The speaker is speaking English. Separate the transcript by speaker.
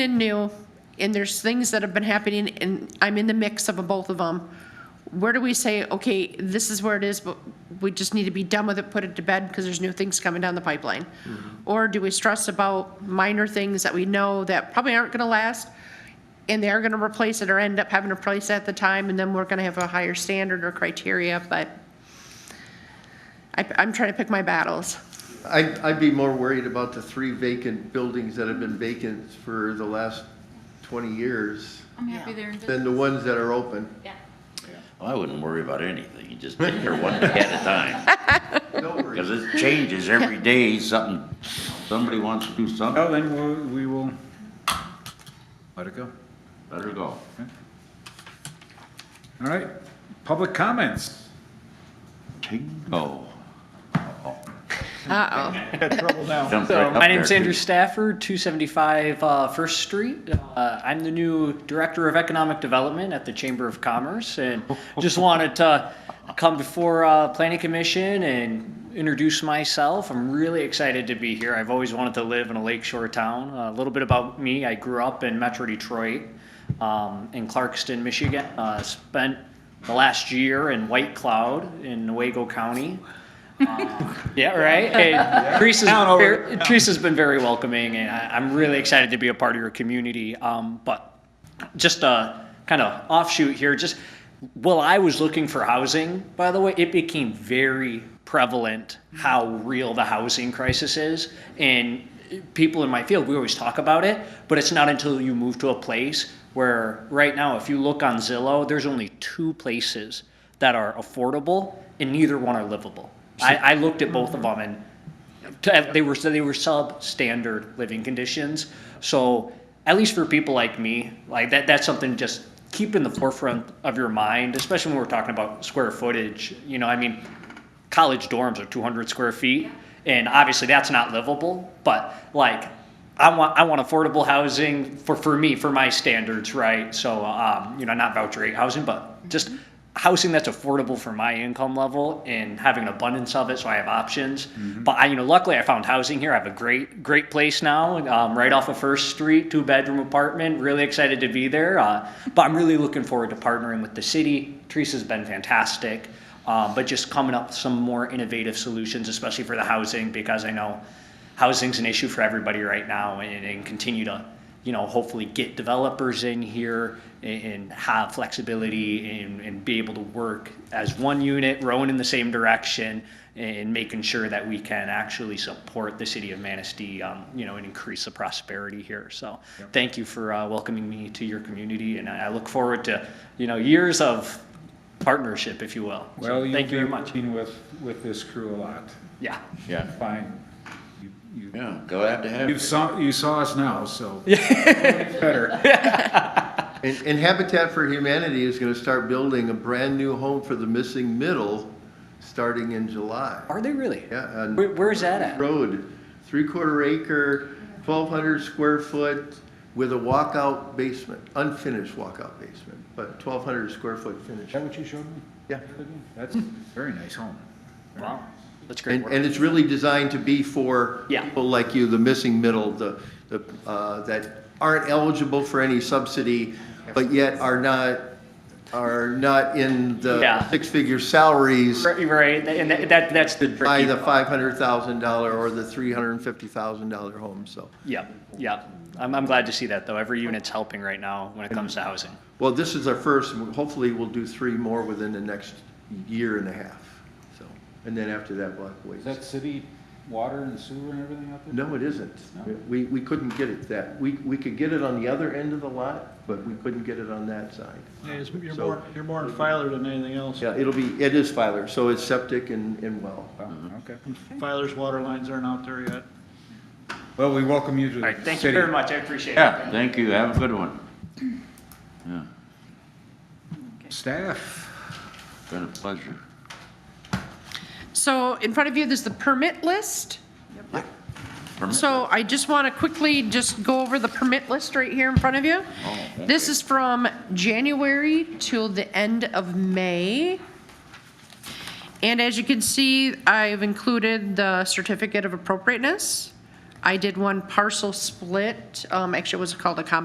Speaker 1: and new, and there's things that have been happening, and I'm in the mix of both of them, where do we say, okay, this is where it is, but we just need to be done with it, put it to bed, because there's new things coming down the pipeline? Or do we stress about minor things that we know that probably aren't gonna last, and they are gonna replace it or end up having to replace it at the time, and then we're gonna have a higher standard or criteria, but I, I'm trying to pick my battles.
Speaker 2: I'd, I'd be more worried about the three vacant buildings that have been vacant for the last 20 years
Speaker 3: I'm happy there.
Speaker 2: than the ones that are open.
Speaker 3: Yeah.
Speaker 4: I wouldn't worry about anything, you just take her one day at a time,
Speaker 2: No
Speaker 4: because
Speaker 2: worries.
Speaker 4: it changes every day, something, somebody wants to do
Speaker 5: Oh.
Speaker 4: something,
Speaker 6: Well, Oh, then we'll- we will let it go.
Speaker 4: let her go.
Speaker 6: All right, public comments.
Speaker 4: Tingo.
Speaker 1: Uh-oh,
Speaker 4: Jumps right
Speaker 5: Oh. So,
Speaker 4: up
Speaker 5: my name's
Speaker 4: there,
Speaker 5: Andrew
Speaker 4: too.
Speaker 5: Stafford, 275 uh, First Street. Uh, I'm the new Director of Economic Development at the Chamber of Commerce, and just wanted to come before uh, Planning Commission and introduce myself. I'm really excited to be here. I've always wanted to live in a lakeshore town. a little bit about me: I grew up in Metro Detroit, um, in Clarkston, Michigan. Uh, spent the last year in White Cloud in Nuevo County. Yeah, right. And Teresa's, ver- Teresa's been very welcoming, and I, I'm really excited to be a part of your community. Um, but just a kind of offshoot here, just while I was looking for housing, by the way, it became very prevalent how real the housing crisis is. And people in my field, we always talk about it, but it's not until you move to a place where right now, if you look on Zillow, there's only two places that are affordable, and neither one are livable. I, I looked at both of them, and to- they were they were substandard living conditions. So at least for people like me, like that that's something to just keep in the forefront of your mind, especially when we're talking about square footage. You know, I mean, college dorms are 200 square feet, and obviously that's not livable. But like, I want I want affordable housing for for me for my standards, right? So um, you know, not voucher rate housing, but just housing that's affordable for my income level and having an abundance of it so I have options. But I, you know, luckily I found housing here. I have a great, great place now, um, right off of First Street, two bedroom apartment. Really excited to be there. Uh, but I'm really looking forward to partnering with the city. Teresa's been fantastic. Um, but just coming up with some more innovative solutions, especially for the housing, because I know housing's an issue for everybody right now and, and continue to, you know, hopefully get developers in here and, and have flexibility and, and be able to work as one unit, rowing in the same direction and making sure that we can actually support the city of Manistee, um, you know, and increase the prosperity here. So thank you for uh, welcoming me to your community and I, I look forward to, you know, years of partnership, if you will. So
Speaker 6: Well, you've
Speaker 5: Thank you very
Speaker 6: been
Speaker 5: much.
Speaker 6: working with, with this crew a lot.
Speaker 5: Yeah.
Speaker 4: Yeah,
Speaker 6: Fine. You- you-
Speaker 4: yeah, glad to have
Speaker 6: You
Speaker 4: you.
Speaker 6: saw, you saw us now, so. Better.
Speaker 2: And, and Habitat for Humanity is going to start building a brand-new home for the missing middle, starting in July.
Speaker 5: Are they really?
Speaker 2: Yeah, on
Speaker 5: Where, where's that at?
Speaker 2: Road, three-quarter acre, 1,200 square foot with a walkout basement, unfinished walkout basement, but 1,200 square foot
Speaker 6: Is
Speaker 2: finish.
Speaker 6: that what you showed me?
Speaker 2: Yeah.
Speaker 6: That's a very nice home.
Speaker 5: Wow, that's great
Speaker 2: And,
Speaker 5: work.
Speaker 2: and it's really designed to be for
Speaker 5: Yeah.
Speaker 2: people like you, the missing middle, the, the, uh, that aren't eligible for any subsidy, but yet are not, are not in the
Speaker 5: Yeah.
Speaker 2: six-figure salaries
Speaker 5: Right, right, and that, that- that's the
Speaker 2: by
Speaker 5: tricky,
Speaker 2: the $500,000 or the $350,000 home, so.
Speaker 5: yeah, yeah. I'm, I'm glad to see that, though. Every unit's helping right now when it comes to housing.
Speaker 2: Well, this is our first, and hopefully we'll do three more within the next year and a half, so. And then after that, we'll have to
Speaker 6: Is
Speaker 2: wait.
Speaker 6: that city water and sewer and everything out there?
Speaker 2: No, it isn't.
Speaker 6: No?
Speaker 2: We, we couldn't get it that, we, we could get it on the other end of the lot, but we couldn't get it on that side.
Speaker 7: Yeah, it's- you're
Speaker 2: So-
Speaker 7: more, you're more in Filer than anything else.
Speaker 2: Yeah, it'll be, it is Filer, so it's septic and, and well.
Speaker 6: Oh, Okay.
Speaker 7: Filer's water lines aren't out there yet.
Speaker 6: Well, we welcome you to
Speaker 5: All right,
Speaker 6: the
Speaker 5: thank you
Speaker 6: city.
Speaker 5: very much. I appreciate it.
Speaker 4: Yeah, thank you, have a good one. Yeah,
Speaker 6: Staff,
Speaker 4: been a pleasure.
Speaker 1: so in front of you, there's the permit list.
Speaker 4: Permit-
Speaker 1: So I just want to quickly just go over the permit list right here in front of you.
Speaker 4: thank
Speaker 1: This
Speaker 4: you.
Speaker 1: is from January till the end of May. And as you can see, I've included the certificate of appropriateness, I did one parcel split, um, actually it was called a combination